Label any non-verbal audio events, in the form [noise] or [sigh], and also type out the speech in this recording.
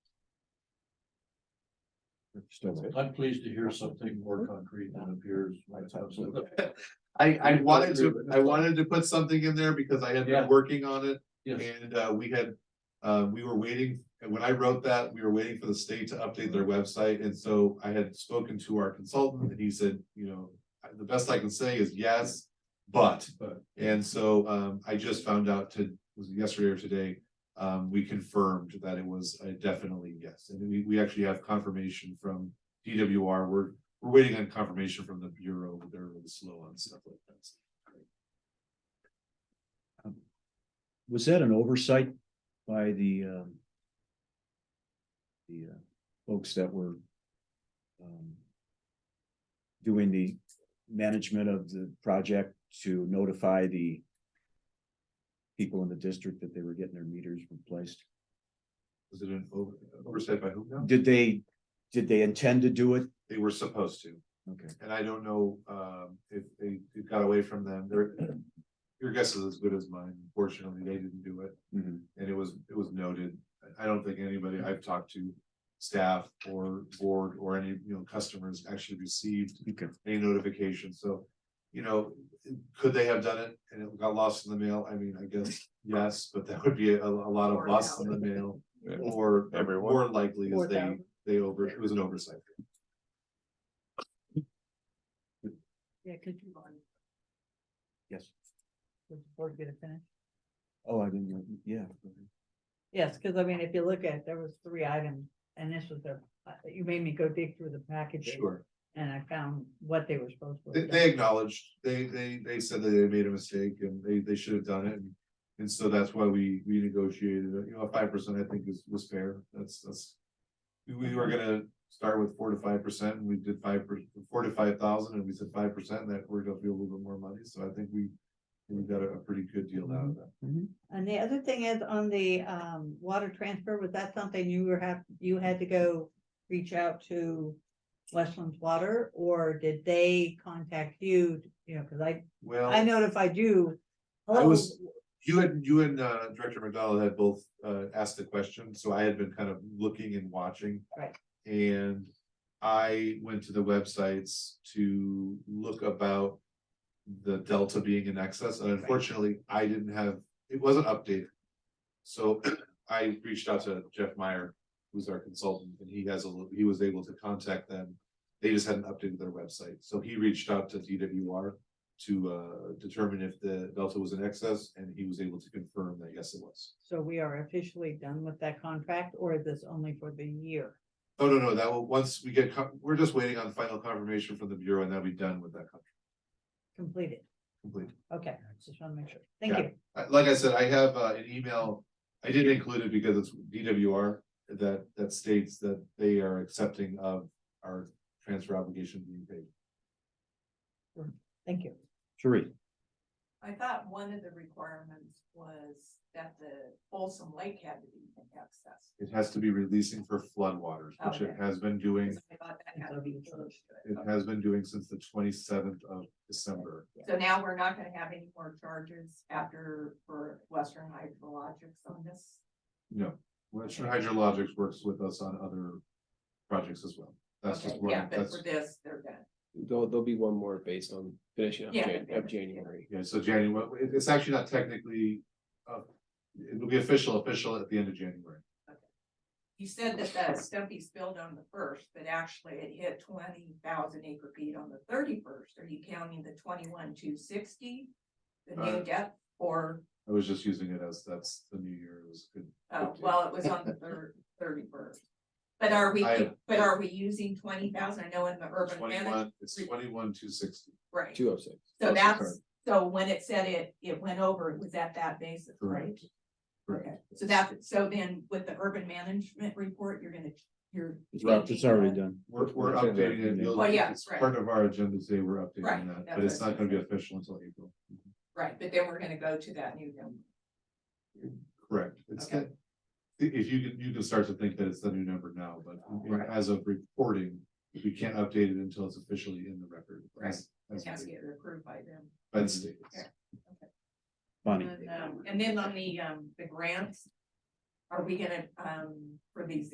I'm pleased to hear something more concrete than appears. I, I Yeah, wanted sure. to, I wanted to put something in there because I had Yeah. been working on it Yes, and, uh, we had. Uh, we were waiting, and when I wrote that, we were waiting for the state to update their website, and so I had spoken to our consultant and he said, you know. "I- The best I can say is yes, but, But. and so, um, I just found out to, was it yesterday or today. Um, we confirmed that it was uh, definitely yes, and we, we actually have confirmation from DWR, we're we're waiting on confirmation from the bureau, they're really slow on stuff like that. Was that an oversight by the um. The uh, folks that were. um, Doing the management of the project to notify the. People in the district that they were getting their meters replaced. Was it an over, oversight by whom now? Did they, did they intend to do it? They were supposed to, Okay, and I don't know, um, if they, it got away from them, They're Your guess is as good as mine, Fortunately, they didn't do it, Mhm. and it was, it was noted, I, I don't think anybody I've talked to. Staff or board or any, you know, customers actually received okay, any notification, so. You know, could they have done it and it got lost in the mail? I mean, I guess, yes, but that would be a, a lot of Or lost no. in the mail. Or Everyone. more likely Or is they, them. they over, it was an oversight. Yeah, could you on, yes. before you get it finished? Oh, I didn't, yeah. Yes, because I mean, if you look at, there was three items, and this was the, uh, you made me go dig through the packages, Sure, and I found what they were supposed to. they, have they done. acknowledged, they, they, they said that they made a mistake and they, they should have done it. and- And so that's why we, we negotiated, you know, five percent I think is, was fair, that's, that's. we- We were gonna start with four to five percent and we did five, per- four to five thousand and we said five percent, that worked out to be a little bit more money, so I think we. We got a, a pretty good deal out of that. And the other thing is on the, um, water transfer, was that something you were have, you had to go reach out to Westland's Water, or did they contact you, you know, because I, Well. I notified you. Oh, I was- "Hello, You and you and uh Director McDonald had both uh asked the question, so I had been kind of looking and watching. Right. And I went to the websites to look about the delta being in excess, and unfortunately, I didn't have, it wasn't updated. So [clears throat] I reached out to Jeff Meyer, who's our consultant, and he has a, little- he was able to contact them. They just hadn't updated their website, so he reached out to DWR to uh determine if the delta was in excess, and he was able to confirm that, yes, it was. So we are officially done with that contract, or is this only for the year? Oh, no, no, that will, once we get, co- we're just waiting on final confirmation from the Bureau, and then we'll be done with that contract Completed, completely. okay, just want to make sure, thank Yeah. you. Uh, Like I said, I have uh an email, I didn't include it because it's DWR, that that states that they are accepting of our transfer obligation being paid. Thank you. Sheree, I thought one of the requirements was that the Folsom Lake had to be in excess. It has to be releasing for floodwaters, which it Okay. has been doing, I thought that had to be included. it has been doing since the twenty seventh of December. So now we're not gonna have any more charges after for Western Hydrologics on this. No, Western Hydrologics works with us on other projects as well. That's just Okay, one, Yeah, but that's, for this, they're done. There'll, there'll be one more based on finishing up Yeah. Jan- of January. yeah, so January, it- it's actually not technically, uh, it'll be official, official at the end of January. You said that the stumpy spilled on the first, but actually it hit twenty thousand acre feet on the thirty-first. Are you counting the twenty-one, two sixty? The Uh, new depth or, I was just using it as, that's the new year, it was good. uh, okay. well, it was on the third, thirty-first. But are we, I- but are we using twenty thousand? I know in the urban management, Twenty-one, it's twenty-one, two sixty, right? Two oh six. So sorry. that's, so when it said it, it went over, it was at that basis, right? correct? Okay, Correct. so that, so then with the urban management report, you're gonna, you're. it's already done. We're, we're updating it. You'll- Well, yeah, It's right. part of our agenda today, we're updating Right, that, that's but it's what I not gonna be official until April. Right, but then we're gonna go to that new number. Correct, it's Okay. that. i- If you can, you can start to think that it's the new number now, but Oh, Right. as of reporting, we can't update it until it's officially in the record. Right. as- It as has to stated. get approved by them. By the state. Yeah. Bonnie. And, um, and then on the, um, the grants, are we gonna, um, for these